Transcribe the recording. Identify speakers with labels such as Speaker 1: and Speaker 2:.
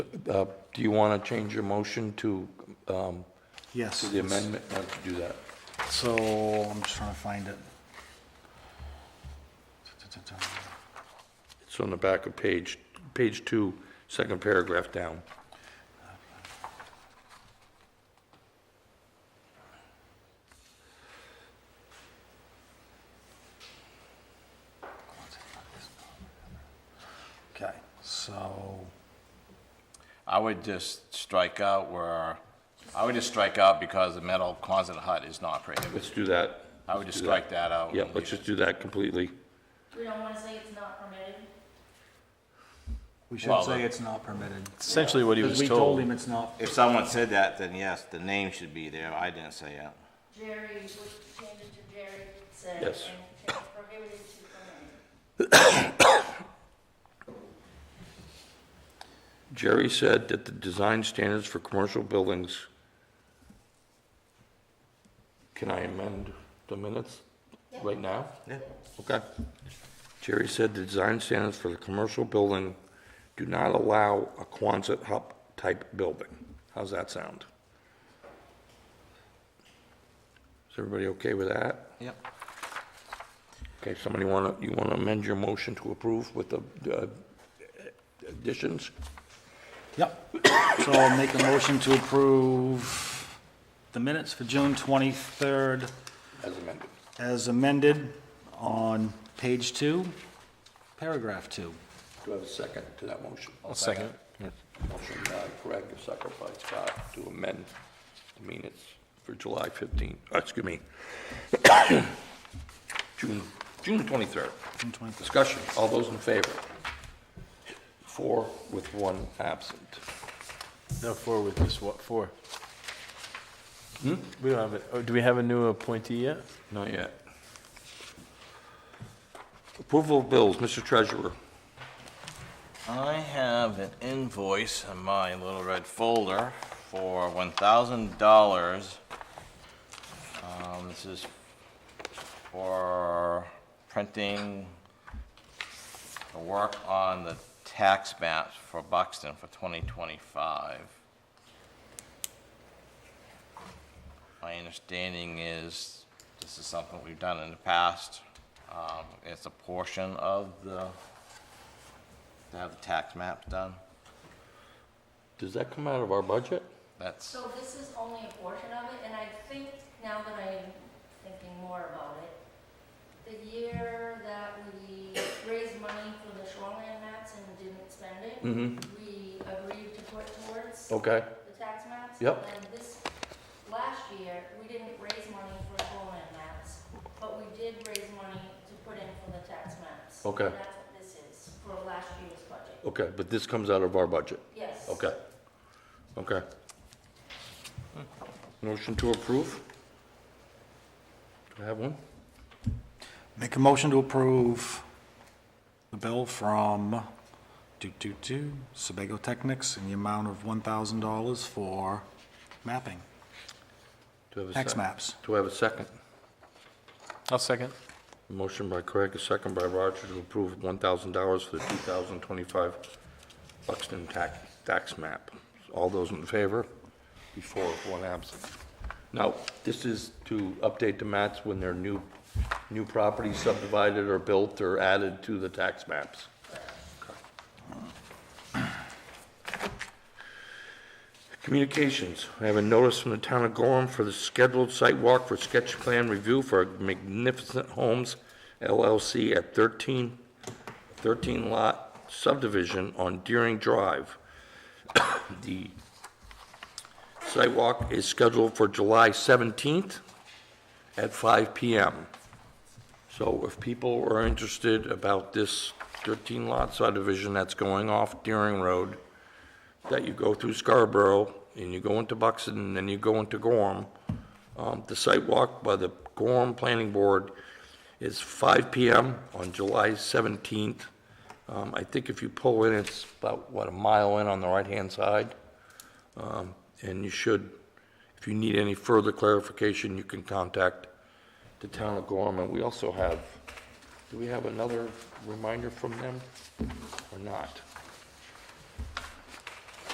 Speaker 1: Uh, Do you want to change your motion to um, to
Speaker 2: Yes.
Speaker 1: the amendment? Why don't you do that?
Speaker 2: So I'm just trying to find it.
Speaker 1: It's on the back of page, page two, second paragraph down.
Speaker 2: Okay, so,
Speaker 3: I would just strike out where, I would just strike out because the metal closet hut is not prohibited.
Speaker 1: Let's do that.
Speaker 3: I would just
Speaker 1: do that.
Speaker 3: strike that out.
Speaker 1: Yeah,
Speaker 3: and
Speaker 1: let's
Speaker 3: leave
Speaker 1: just do that completely.
Speaker 4: We don't wanna say it's not permitted.
Speaker 2: we
Speaker 3: Well,
Speaker 2: should say
Speaker 3: the-
Speaker 2: it's not permitted.
Speaker 5: Essentially what he
Speaker 2: Because
Speaker 5: was
Speaker 2: we told
Speaker 5: told.
Speaker 2: him it's not,
Speaker 6: If someone said that, then yes, the name should be there. I didn't say it.
Speaker 4: Jerry, would change it to Jerry said, and
Speaker 1: Yes.
Speaker 4: change prohibited to permitted.
Speaker 1: Jerry said that the design standards for commercial buildings, can I amend the minutes right now?
Speaker 6: Yeah.
Speaker 1: Okay. Jerry said the design standards for the commercial building do not allow a Quonset hut-type building. How's that sound? Is everybody okay with that?
Speaker 2: yep.
Speaker 1: Okay, somebody want to, you want to amend your motion to approve with the uh, additions?
Speaker 2: Yep. So I'll make a motion to approve the minutes for June 23rd
Speaker 1: As amended.
Speaker 2: as amended on page two, paragraph two.
Speaker 1: Do I have a second to that motion?
Speaker 5: I'll second it.
Speaker 1: Motion by Craig, a second by Scott, to amend the minutes for July 15, uh, excuse me, June, June 23rd.
Speaker 2: June 23rd.
Speaker 1: Discussion, all those in favor? Four with one absent.
Speaker 5: No, four with this, what, four? We don't have it, oh, do we have a new appointee yet?
Speaker 1: Hmm? Not yet. Approval of bills, Mr. Treasurer.
Speaker 6: I have an invoice in my little red folder for one thousand dollars. Um, this is for printing the work on the tax maps for Buxton for twenty twenty-five. My understanding is this is something we've done in the past. Um, it's a portion of the to have the tax maps done.
Speaker 1: Does that come out of our budget?
Speaker 6: That's,
Speaker 4: So this is only a portion of it, and I think, now that I'm thinking more about it, the year that we raised money for the shoreline maps and didn't spend it, we agreed to put towards
Speaker 1: Okay.
Speaker 4: the tax maps.
Speaker 1: Yep.
Speaker 4: And this, last year, we didn't raise money for shoreline maps, but we did raise money to put in for the tax maps.
Speaker 1: Okay.
Speaker 4: And that's what this is, for last year's budget.
Speaker 1: Okay, but this comes out of our budget?
Speaker 4: Yes.
Speaker 1: Okay. Okay. Motion to approve? Do I have one?
Speaker 2: Make a motion to approve the bill from do do do Sebago Technics in the amount of one thousand dollars for mapping,
Speaker 1: Do I have a
Speaker 2: tax
Speaker 1: sec-
Speaker 2: maps.
Speaker 1: Do I have a second?
Speaker 5: I'll second.
Speaker 1: Motion by Craig, a second by Roger to approve $1,000 for the 2025 Buxton tax, tax map. All those in favor? Before, one absent. Now, this is to update the maps when they're new, new properties subdivided or built or added to the tax maps. Communications. I have a notice from the town of Gorham for the scheduled site walk for sketch plan review for Magnificent Homes LLC at 13, 13 lot subdivision on Deering Drive. The site walk is scheduled for July 17th at 5 PM. So if people are interested about this 13 lot subdivision that's going off Deering Road, that you go through Scarborough, and you go into Buxton, and then you go into Gorham. Um, The site walk by the Gorham Planning Board is 5 PM on July 17th. Um, I think if you pull in, it's about, what, a mile in on the right-hand side? Um, And you should, if you need any further clarification, you can contact the town of Gorham. And we also have, do we have another reminder from them or not?